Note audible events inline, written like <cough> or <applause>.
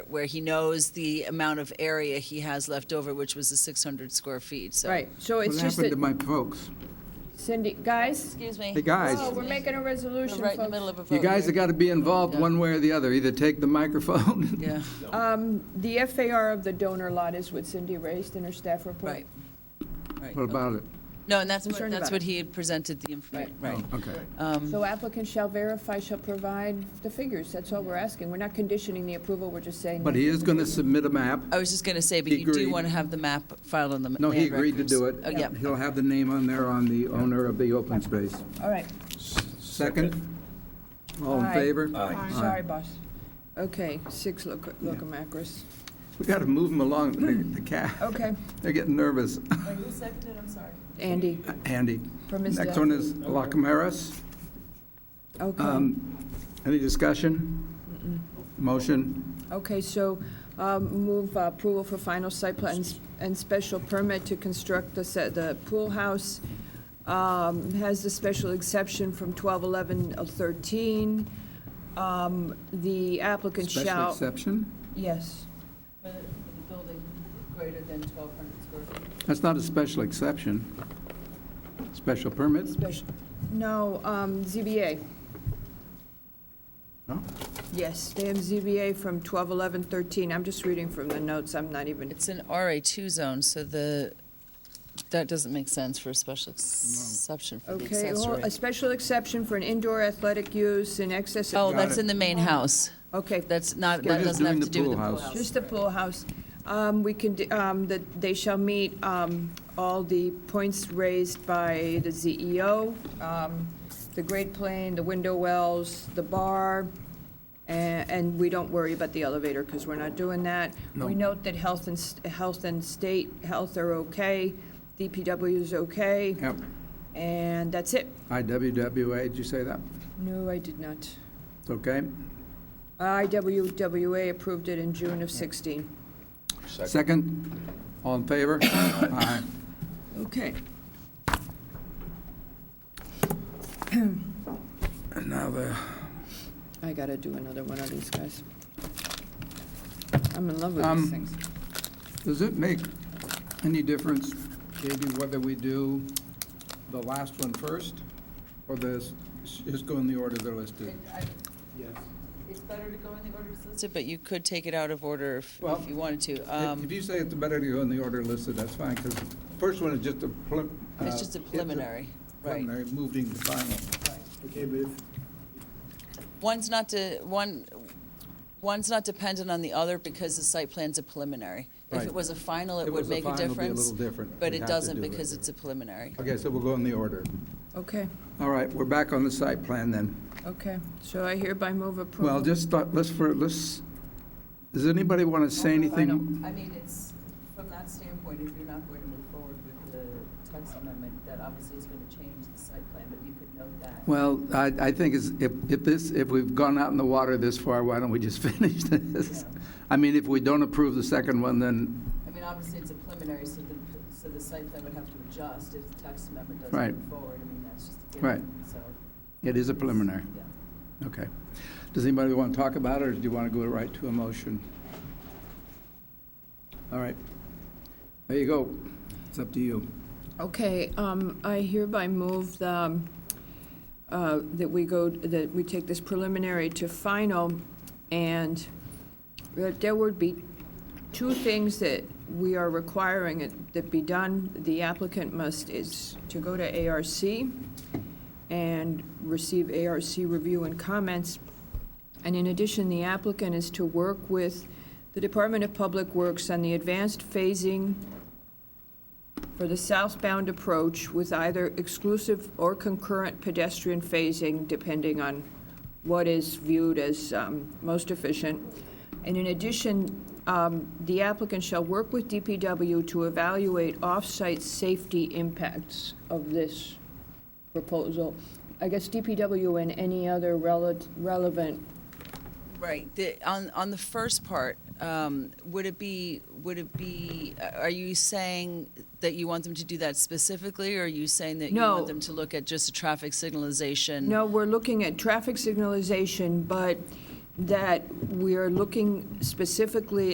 where he knows the amount of area he has left over, which was the 600 square feet, so. Right, so What it's just happened to that, my folks? Cindy, guys? Excuse me. Hey, guys, Oh, we're making a We're resolution, right in the folks. middle of a vote. you guys have here. got to be involved one way or the other. Either take the microphone. <laughs> Yeah, Um, the FAR of the donor lot is what Cindy raised in her staff report. right. Right. What about it? No, and that's, what- Concerned that's about what it. he had presented the, inf- Right. right. Oh, Okay. So applicants shall verify, shall provide the figures, that's all we're asking. We're not conditioning the approval, we're just saying. But he is going to submit a map. I was just going to say, but He you do agreed. want to have the map filed on the. No, he land agreed to records. do it. Oh, yeah. He'll have the name on there on the owner of the open space. All right, Second? All in Aye. favor? sorry, boss. Okay, six loca- locomacris. We got to move them along, the- the cat. Okay, They're getting nervous. <laughs> Andy, Andy. from his Next staff. one is La Cameras. Okay, Um, Any discussion? Motion? okay, so um, move uh, approval for final site plan s- and special permit to construct the, se- the pool house. um, Has the special exception from 121113. Um, The applicant Special shall, exception? yes. Building greater than 1,200 square feet. That's not a special exception. Special permit? Special, no, um, ZBA. No? Yes, they have ZBA from 121113. I'm just reading from the notes, I'm not even, It's an RA2 zone, so the, that doesn't make sense for a special exception for the okay. well, accessory. A special exception for an indoor athletic use in excess Oh, of, that's it. in the main house. okay, That's not, We're that just doesn't have to doing the do with the pool pool house. house. just a pool house. Um, We can, d- um, that they shall meet um, all the points raised by the ZEO, um, the grade plane, the window wells, the bar, a- and we don't worry about the elevator because we're not doing that. We note that health and, s- health and state, health are okay, DPW is okay, Yep. and that's it. IWWA, did you say that? No, I did not. It's okay? IWWA approved it in June of 16. Second? All in favor? Aye. Okay. And now the, I gotta do another one of these guys. I'm in love with Um, these things. does it make any difference, JD, whether we do the last one first or this, just go in the order they're listed? It's better to go in the order listed. But you could take it out of order if, Well, if you wanted to. Um, If you say it's better to go in the order listed, that's fine, because the first one is just a prelim. It's uh, just a preliminary, right. Preliminary, moving to final. Okay, but if, One's not to, one, one's not dependent on the other because the site plan's a preliminary. If it Right. was a final, it If would was a make a final, it'd be a difference. little different. But We'd it have to doesn't do it. because it's a preliminary. Okay, so we'll go in the order. Okay, All right, we're back on the site plan then. okay. So I hereby move approval. Well, just, thought- let's, for, let's, does anybody want to say anything? I mean, it's, from that standpoint, if you're not going to move forward with the text amendment, that obviously is going to change the site plan, but you could note that. Well, I, I think it's, if, if this, if we've gone out in the water this far, why don't we just <laughs> finish this? Yeah. I mean, if we don't approve the second one, then, I mean, obviously, it's a preliminary, so the, so the site plan would have to adjust if the text amendment Right. doesn't move forward. I mean, that's just a Right. given, so, it is a preliminary. yeah. Okay. Does anybody want to talk about it, or do you want to go right to a motion? All right. There you go. It's up to you. Okay, um, I hereby move the, um, uh, that we go, that we take this preliminary to final, and that there would be two things that we are requiring it- that be done. The applicant must, is to go to ARC and receive ARC review and comments. And in addition, the applicant is to work with the Department of Public Works on the advanced phasing for the southbound approach with either exclusive or concurrent pedestrian phasing, depending on what is viewed as um, most efficient. And in addition, um, the applicant shall work with DPW to evaluate off-site safety impacts of this proposal. I guess DPW and any other rele- relevant, Right, the, on, on the first part, um, would it be, would it be, are you saying that you want them to do that specifically, or are you saying that you No. want them to look at just a traffic signalization? no, we're looking at traffic signalization, but that we are looking specifically